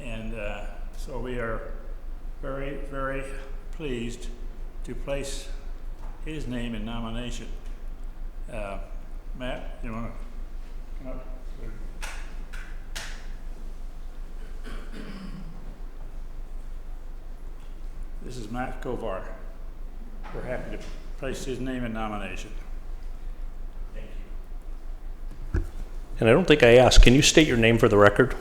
And uh, so we are very, very pleased to place his name in nomination. Uh, Matt, you want to come up? This is Matt Kovar. We're happy to place his name in nomination. Thank you. And I don't think I asked, can you state your name for the record?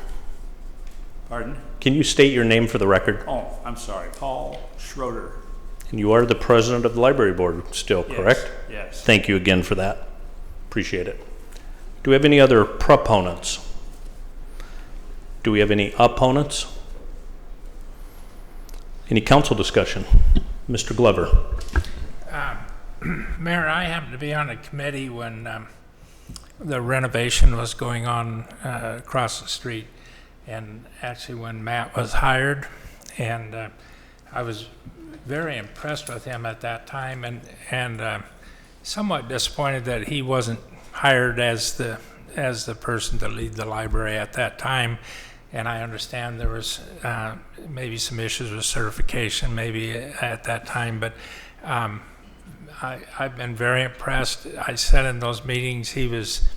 Pardon? Can you state your name for the record? Oh, I'm sorry, Paul Schroeder. And you are the president of the library board still, Yes, correct? Yes. Thank you again for that. Appreciate it. Do we have any other proponents? Do we have any opponents? Any council discussion? Mr. Glover? Mayor, I happened to be on a committee when um, the renovation was going on uh, across the street, and actually when Matt was hired, and uh, I was very impressed with him at that time, and, and uh, somewhat disappointed that he wasn't hired as the, as the person to lead the library at that time. And I understand there was uh, maybe some issues with certification, maybe uh, at that time, but um, I, I've been very impressed. I said in those meetings, he was,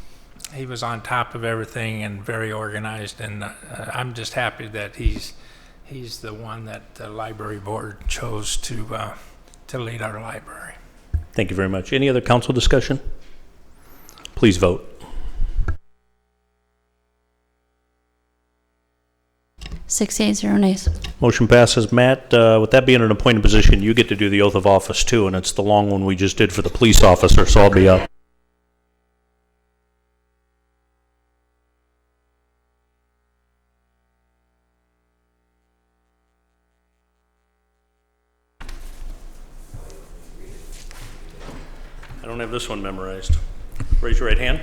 he was on top of everything and very organized, and uh, I'm just happy that he's, he's the one that the library board chose to, uh, to lead our library. Thank you very much. Any other council discussion? Please vote. Six eight zero nays. Motion passes. Matt, uh, with that being an appointed position, you get to do the oath of office too, and it's the long one we just did for the police officer, so I'll be up. I don't have this one memorized. Raise your right hand.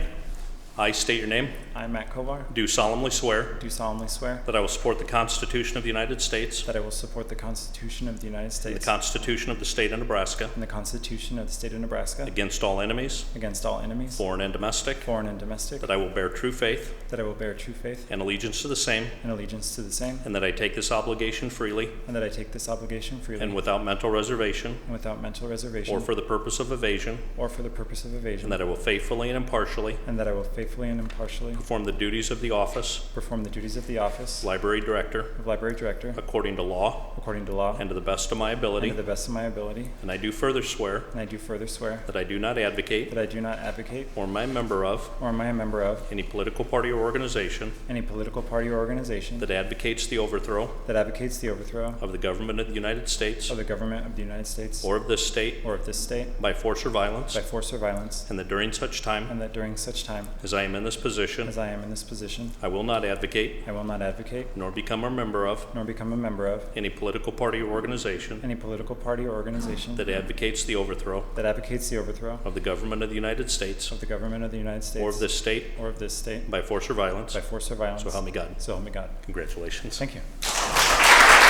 I state your name. I, Matt Kovar, Do solemnly swear do solemnly swear that I will support the Constitution of the United States that I will support the Constitution of the United and the States Constitution of the State of Nebraska and the Constitution of the State of Nebraska Against all enemies, against all enemies, foreign and domestic, foreign and domestic, that I will bear true faith that I will bear true faith and allegiance to the same, and allegiance to the same, and that I take this obligation freely and that I take this obligation freely and and without mental reservation without mental or reservation for the purpose of evasion, or for the purpose of and evasion, that I will faithfully and impartially and that I will faithfully and impartially perform the duties of the office perform the duties of the office of Library Director of Library Director according to law according to law and to the best of my and ability. to the best of my ability, And I do further swear and I do further swear that I do not advocate that I do not advocate or am a member of or am I a member of any political party or organization any political party or organization that advocates the overthrow that advocates the overthrow of the government of the United States of the government of the United States or of this state or of this state by force or violence, by force or violence, and that during such time and that during such time As I am in this position, as I am in this position, I will not advocate I will not advocate nor become a member of nor become a member of any political party or organization any political party or organization that advocates the overthrow that advocates the overthrow of the government of the United States of the government of the United States or of this state or of this state by force or violence. by force or violence. So help me God. So help me God. Congratulations. Thank you.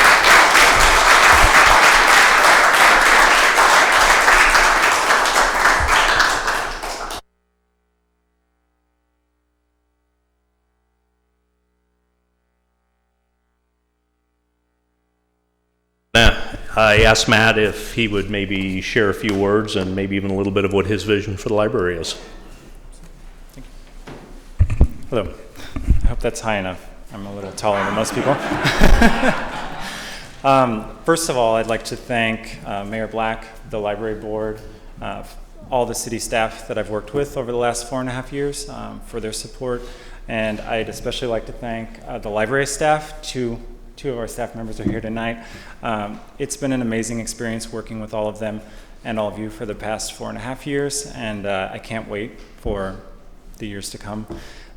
Now, I asked Matt if he would maybe share a few words and maybe even a little bit of what his vision for the library is. Hello. I hope that's high enough. I'm a little taller than most people. um, first of all, I'd like to thank uh, Mayor Black, the library board, uh, all the city staff that I've worked with over the last four and a half years um, for their support. And I'd especially like to thank uh, the library staff. Two, two of our staff members are here tonight. Um, it's been an amazing experience working with all of them and all of you for the past four and a half years. And uh, I can't wait for the years to come.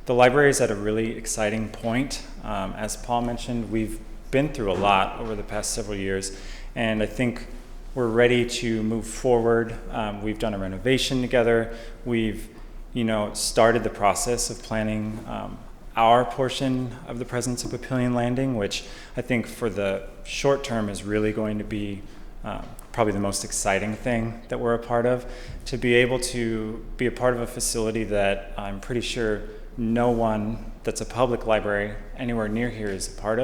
The library is at a really exciting point. Um, as Paul mentioned, we've been through a lot over the past several years, and I think we're ready to move forward. Um, we've done a renovation together. We've, you know, started the process of planning um, our portion of the Presence of Papillion Landing, which I think for the short term is really going to be uh, probably the most exciting thing that we're a part of. To be able to be a part of a facility that I'm pretty sure no one that's a public library anywhere near here is a part of.